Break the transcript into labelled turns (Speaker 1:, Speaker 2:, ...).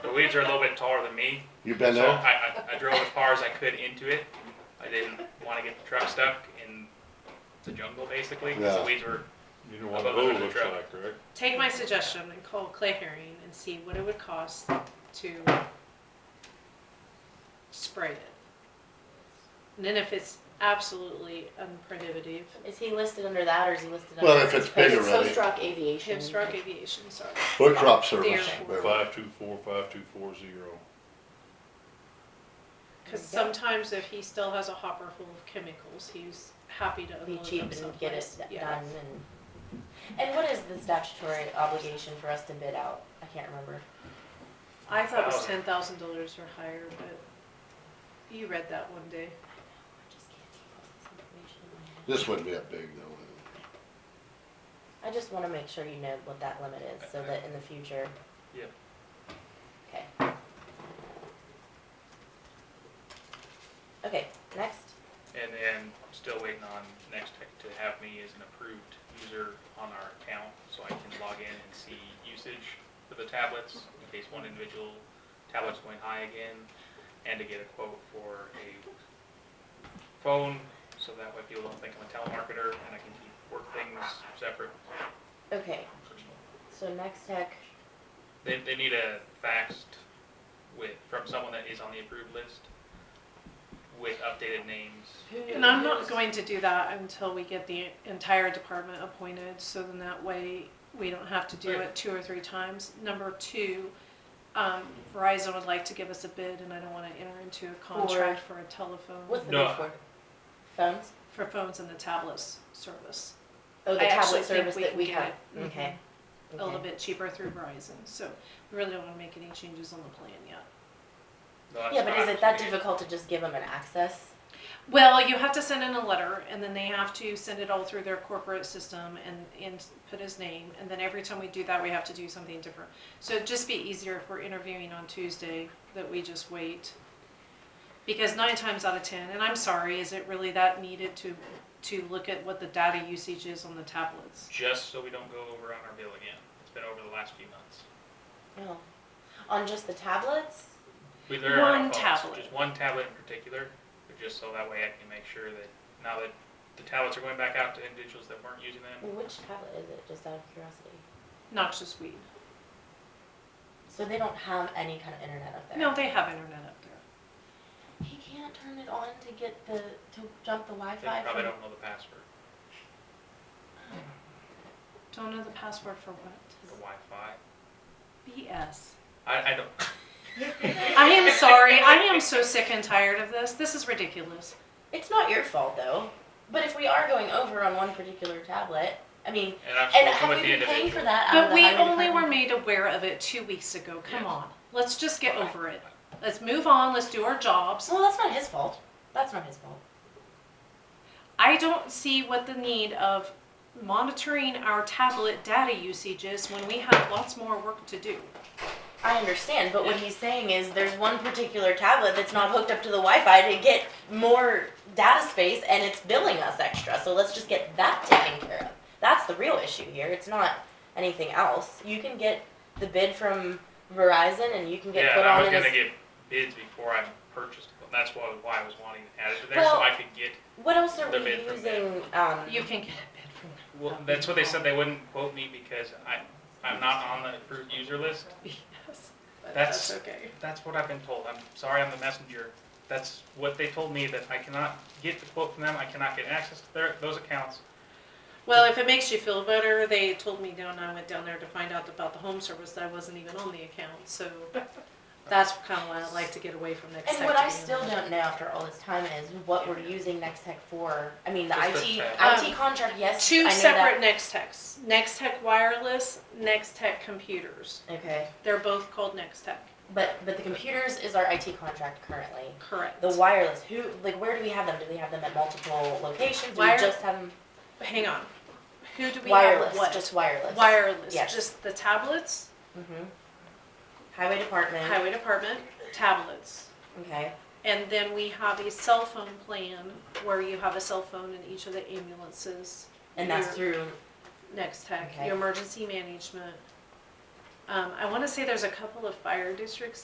Speaker 1: the weeds are a little bit taller than me.
Speaker 2: You been
Speaker 1: so
Speaker 2: there?
Speaker 1: I, I, I drove as far as I could into it. I didn't want to get the truck stuck in the jungle basically because
Speaker 2: Yeah.
Speaker 1: the weeds were.
Speaker 3: You know what a
Speaker 1: Above the
Speaker 3: hole
Speaker 1: truck.
Speaker 3: looks like, right?
Speaker 4: Take my suggestion and call Clay Herring and see what it would cost to spray it. And then if it's absolutely unprohibitive,
Speaker 5: Is he listed under that or is he listed under?
Speaker 2: Well, if it's big
Speaker 5: It's
Speaker 2: already.
Speaker 5: Homestruck Aviation.
Speaker 1: Mm-hmm.
Speaker 4: Hipstruck Aviation, sorry.
Speaker 2: Hood crop service.
Speaker 4: There.
Speaker 2: Wait, wait.
Speaker 3: Five two four, five two four zero.
Speaker 4: Because sometimes if he still has a hopper full of chemicals, he's happy to
Speaker 5: Be
Speaker 4: unload
Speaker 5: cheap
Speaker 4: them
Speaker 5: and get it
Speaker 4: someplace.
Speaker 5: d-
Speaker 4: Yeah.
Speaker 5: done and. And what is the statutory obligation for us to bid out? I can't remember.
Speaker 4: I thought it was ten
Speaker 1: Thousand.
Speaker 4: thousand dollars or higher, but you read that one day.
Speaker 5: I just can't keep all this information in my head.
Speaker 2: This wouldn't be that big though.
Speaker 5: I just wanna make sure you know what that limit is, so that in the future.
Speaker 1: Yeah.
Speaker 5: Okay. Okay, next.
Speaker 1: And then still waiting on next Tech to have me as an approved user on our account so I can log in and see usage for the tablets in case one individual tablet's going high again and to get a quote for a phone so that way people don't think I'm a telemarketer and I can keep work things separate.
Speaker 5: Okay, so next tech,
Speaker 1: They, they need a fax with, from someone that is on the approved list with updated names.
Speaker 4: And I'm not going to do that until we get the entire department appointed, so then that way we don't have to do
Speaker 1: Right.
Speaker 4: it two or three times. Number two, um, Verizon would like to give us a bid and I don't wanna enter into a contract for a telephone,
Speaker 5: what's the
Speaker 1: No.
Speaker 5: bid for? Phones?
Speaker 4: for phones and the tablets service.
Speaker 5: Oh, the
Speaker 4: I actually
Speaker 5: tablet
Speaker 4: think
Speaker 5: service
Speaker 4: we
Speaker 5: that
Speaker 4: can
Speaker 5: we
Speaker 4: get
Speaker 5: have,
Speaker 4: it. Mhm.
Speaker 5: okay.
Speaker 4: A little
Speaker 5: okay.
Speaker 4: bit cheaper through Verizon, so we really don't wanna make any changes on the plan yet.
Speaker 1: No, that's
Speaker 5: Yeah, but is
Speaker 1: not-
Speaker 5: it that difficult to just give them an access?
Speaker 4: Well, you have to send in a letter, and then they have to send it all through their corporate system and, and put his name, and then every time we do that, we have to do something different. So it'd just be easier if we're interviewing on Tuesday, that we just wait. Because nine times out of ten, and I'm sorry, is it really that needed to, to look at what the data usage is on the tablets?
Speaker 1: just so we don't go over on our bill again. It's been over the last few months.
Speaker 5: No. On just the tablets?
Speaker 1: We, there are
Speaker 4: One
Speaker 1: phones,
Speaker 4: tablet.
Speaker 1: Just one tablet in particular, but just so that way I can make sure that now that the tablets are going back out to individuals that weren't using them,
Speaker 5: Which tablet is it, just out of curiosity?
Speaker 4: Noxious weed.
Speaker 5: So they don't have any kind of internet up there?
Speaker 4: No, they have internet up there.
Speaker 5: He can't turn it on to get the, to jump the Wi-Fi
Speaker 1: they probably
Speaker 5: from-
Speaker 1: don't know the password,
Speaker 4: Don't know the password for what?
Speaker 1: the Wi-Fi.
Speaker 4: BS.
Speaker 1: I, I don't,
Speaker 4: I am sorry, I am so sick and tired of this, this is ridiculous.
Speaker 5: It's not your fault though, but if we are going over on one particular tablet, I mean,
Speaker 1: and I've spoken
Speaker 5: and have
Speaker 1: with
Speaker 5: we
Speaker 1: the
Speaker 5: been paying for
Speaker 1: individual.
Speaker 5: that out of
Speaker 4: But
Speaker 5: the
Speaker 4: we
Speaker 5: highway
Speaker 4: only were
Speaker 5: department?
Speaker 4: made aware of it two weeks ago, come
Speaker 1: Yes.
Speaker 4: on, let's just get over it. Let's move on, let's do our jobs.
Speaker 5: Well, that's not his fault. That's not his fault.
Speaker 4: I don't see what the need of monitoring our tablet data usage is when we have lots more work to do.
Speaker 5: I understand, but what he's saying is there's one particular tablet that's not hooked up to the Wi-Fi to get more data space, and it's billing us extra. So let's just get that taken care of. That's the real issue here. It's not anything else. You can get the bid from Verizon, and you can get
Speaker 1: Yeah,
Speaker 5: put
Speaker 1: and I
Speaker 5: on
Speaker 1: was
Speaker 5: in
Speaker 1: gonna
Speaker 5: this.
Speaker 1: get bids before I purchased, it, and that's why, why I was wanting to add it to there,
Speaker 5: Well-
Speaker 1: so I could get,
Speaker 5: What else are
Speaker 1: the
Speaker 5: we
Speaker 1: bid from them.
Speaker 5: using? Um,
Speaker 4: You can get a bid from them.
Speaker 1: well, that's what they said, they wouldn't quote me because I, I'm not on the approved user list.
Speaker 4: Yes, but
Speaker 1: That's-
Speaker 4: that's okay.
Speaker 1: That's what I've been told. I'm sorry, I'm the messenger. That's what they told me, that I cannot get the quote from them, I cannot get access to their, those accounts.
Speaker 4: Well, if it makes you feel better, they told me down, I went down there to find out about the home service that I wasn't even on the account, so that's kinda why I like to get away from next
Speaker 5: And
Speaker 4: Tech
Speaker 5: what
Speaker 4: to
Speaker 5: I
Speaker 4: be
Speaker 5: still
Speaker 4: honest.
Speaker 5: don't know after all this time is what we're using Next Tech for. I mean, the
Speaker 1: Just the
Speaker 5: IT,
Speaker 1: fact.
Speaker 5: IT contract, yes, I know
Speaker 4: Um, Two
Speaker 5: that.
Speaker 4: separate Next Techs. Next Tech Wireless, Next Tech Computers.
Speaker 5: Okay,
Speaker 4: They're both called Next Tech.
Speaker 5: but, but the computers is our IT contract currently.
Speaker 4: Correct.
Speaker 5: The wireless, who, like, where do we have them? Do we have them at multiple locations? Do we
Speaker 4: Wire-
Speaker 5: just have them
Speaker 4: Hang on. Who do we have?
Speaker 5: wireless,
Speaker 4: What?
Speaker 5: just wireless?
Speaker 4: wireless.
Speaker 5: Yes.
Speaker 4: Just the tablets,
Speaker 5: Mhm. Highway department,
Speaker 4: highway department, tablets.
Speaker 5: okay,
Speaker 4: And then we have a cell phone plan where you have a cell phone in each of the ambulances.
Speaker 5: and that's
Speaker 4: Your-
Speaker 5: through,
Speaker 4: Next Tech,
Speaker 5: Okay.
Speaker 4: your emergency management. Um, I wanna say there's a couple of fire districts